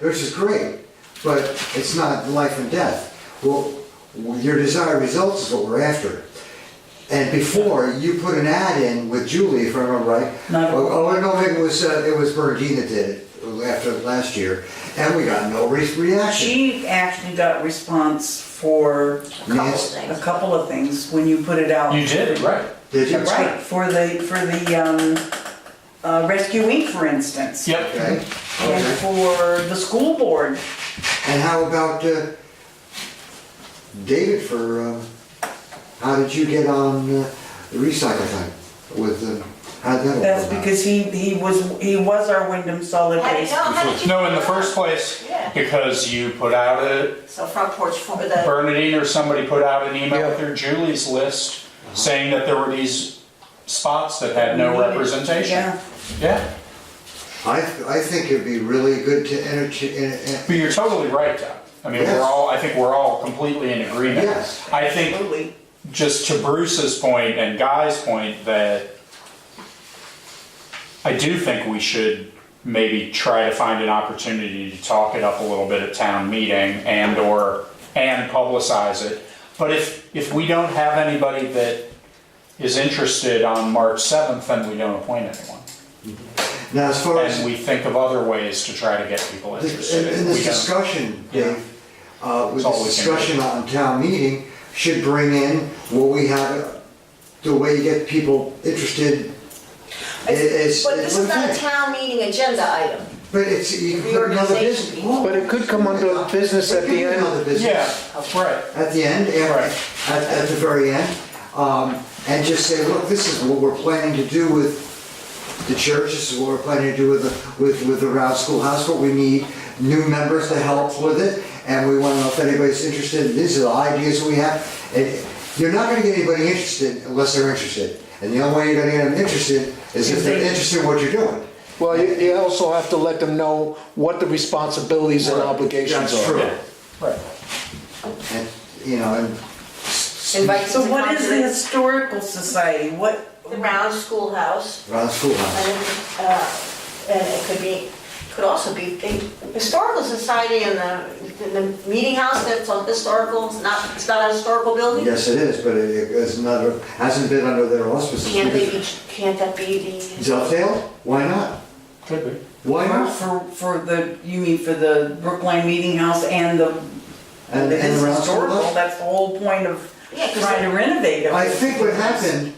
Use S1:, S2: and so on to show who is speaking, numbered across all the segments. S1: Yours is great, but it's not life and death. Well, your desired results is what we're after. And before, you put an ad in with Julie, if I remember right.
S2: No.
S1: Oh, oh, no, it was, uh, it was Bernadine that did it after last year, and we got no re- reaction.
S2: She actually got response for
S1: Nancy-
S2: a couple of things when you put it out.
S3: You did, right?
S1: Did you?
S2: Right, for the, for the, um, uh, Rescue Inc., for instance.
S3: Yep.
S1: Okay,
S2: And
S1: okay.
S2: for the school board.
S1: And how about uh, David for, uh, how did you get on uh, the recycle thing with, uh, how did that all go
S2: That's
S1: about?
S2: because he, he was, he was our Wyndham solid
S4: How did-
S2: waste.
S4: no, how did you-
S3: No, in the first place,
S4: Yeah.
S3: because you put out a,
S4: So front porch for the,
S3: Bernadine or somebody put out an email
S1: Yeah.
S3: with their Julie's list saying that there were these spots that had no representation.
S2: Mm-hmm. Yeah,
S3: Yeah,
S1: I, I think it'd be really good to entertain, eh,
S3: but you're totally right, Doug. I mean,
S1: Yes.
S3: we're all, I think we're all completely in agreement.
S1: Yes.
S3: I think
S2: absolutely.
S3: just to Bruce's point and Guy's point that I do think we should maybe try to find an opportunity to talk it up a little bit at town meeting and or and publicize it. But if if we don't have anybody that is interested on March seventh, then we don't appoint anyone.
S1: now as far as.
S3: And we think of other ways to try to get people
S1: This-
S3: interested.
S1: In in this
S3: We don't-
S1: discussion,
S3: Yeah.
S1: Dave, uh, with
S3: It's all
S1: this
S3: we can do.
S1: discussion on town meeting, should bring in what we have, the way you get people interested. It- It's,
S4: but
S1: it's
S4: this
S1: one
S4: is not a
S1: thing,
S4: town meeting agenda item.
S1: but it's, you can put another
S4: Reorganization.
S1: business. Well,
S5: But it could come under business
S1: it
S5: at
S1: could
S5: the
S1: be
S5: end.
S1: Another
S3: Yeah,
S1: business,
S3: right.
S1: at the end, at,
S3: Right.
S1: at at the very end, um, and just say, look, this is what we're planning to do with the church, this is what we're planning to do with the, with, with the Rouse Schoolhouse, but we need new members to help with it, and we wanna know if anybody's interested, these are the ideas we have. And you're not gonna get anybody interested unless they're interested, and the only way you're gonna get them interested is if they're interested in what you're doing.
S5: Well, you, you also have to let them know what the responsibilities and obligations
S1: That's
S5: are.
S1: true.
S3: Yeah, right.
S1: And, you know, and
S4: Invite
S2: So
S4: to
S2: what is the
S4: conference.
S2: historical society? What,
S4: The round schoolhouse,
S1: Rouse Schoolhouse.
S4: and, uh, and it could be, could also be, the historical society and the, and the meeting house that's on historical, it's not, it's not a historical building?
S1: Yes, it is, but it is another, hasn't been under their auspices.
S4: Can't they
S1: because-
S4: be, can't that be the?
S1: Dovetail? Why not?
S3: Could be.
S1: Why not?
S2: for, for the, you mean for the Brookline Meeting House and the
S1: And,
S2: It
S1: and
S2: is
S1: around
S2: historical,
S1: Philadelphia?
S2: that's the whole point of
S4: Yeah, 'cause
S2: trying to renovate it.
S1: I think what happened,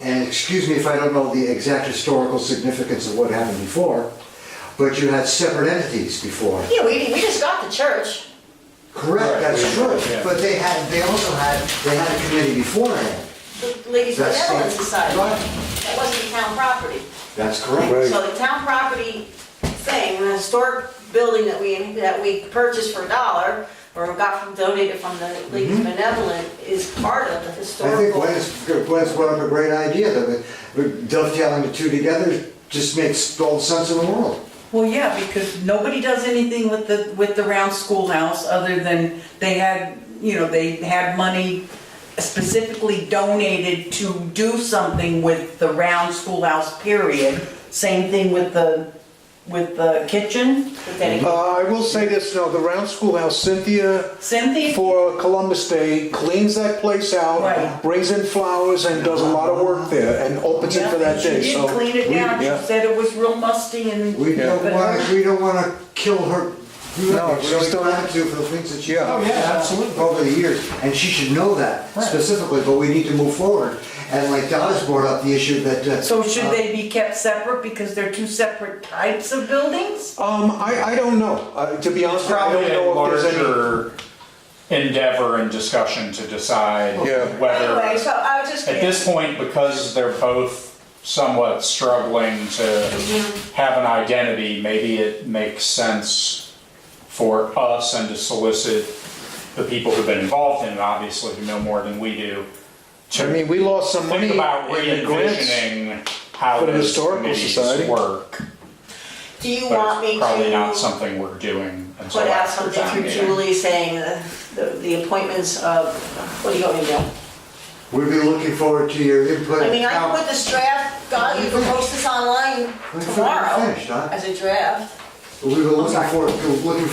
S1: and excuse me if I don't know the exact historical significance of what happened before, but you had separate entities before.
S4: Yeah, we, we just got the church.
S1: Correct,
S3: Right,
S1: that's
S3: we-
S1: true,
S3: yeah.
S1: but they had, they also had, they had a committee beforehand.
S4: The Ladies
S1: That's the-
S4: Benevolent Society.
S1: Right.
S4: That wasn't town property.
S1: That's correct.
S4: So the town property thing, the historic building that we, that we purchased for a dollar, or got from, donated from the League of Benevolent, is part of
S1: Mm-hmm.
S4: the
S1: I think
S4: historical.
S1: Gwen's, Gwen's brought up a great idea, that we- dovetailing the two together just makes all the sense in the world.
S2: Well, yeah, because nobody does anything with the, with the round schoolhouse other than they had, you know, they had money specifically donated to do something with the round schoolhouse, period. Same thing with the, with the kitchen.
S4: But then again,
S5: Uh, I will say this, no, the round schoolhouse, Cynthia
S2: Cynthia,
S5: for Columbus Day cleans that place out,
S2: Right.
S5: brings in flowers and does a lot of work there and opens it for that
S2: she
S5: day,
S2: did
S5: so.
S2: clean it down,
S5: yeah.
S2: she said it was real musty and.
S1: We don't
S2: but-
S1: want, we don't want to kill her.
S5: No,
S1: We
S5: she's
S1: don't
S5: still-
S1: want to for the things that she.
S5: Yeah. Oh,
S3: yeah, absolutely.
S1: Over the years, and she should know that
S3: Right.
S1: specifically, but we need to move forward. And like Donna's brought up the issue that. uh,
S2: So should they be kept separate because they're two separate types of buildings?
S5: Um, I, I don't know, uh, to be honest, I don't
S3: probably a
S5: know if there's any.
S3: larger endeavor and discussion to decide
S5: Yeah.
S4: anyway,
S3: whether,
S4: so I was just.
S3: at this point, because they're both somewhat struggling to
S4: Mm-hmm.
S3: have an identity, maybe it makes sense for us and to solicit the people who've been involved in it, obviously, who know more than we do,
S5: I mean,
S3: to
S5: we lost some money
S3: think
S5: in
S3: about
S5: the grants.
S3: re-envisioning how
S5: for the
S3: those
S5: historical
S3: committees
S5: society.
S3: work.
S4: Do you want
S3: But
S4: me
S3: it's probably not
S4: to
S3: something we're doing until
S4: put out
S3: after
S4: something
S3: town
S4: through
S3: meeting.
S4: Julie saying the- the, the appointments of, what do you want me to do?
S1: We'd be uh, looking forward to your input.
S4: I mean, I can put this draft, God, you can post this online
S1: We're
S4: tomorrow
S1: finished, huh?
S4: as a draft.
S1: We were looking
S2: sorry.
S1: for, looking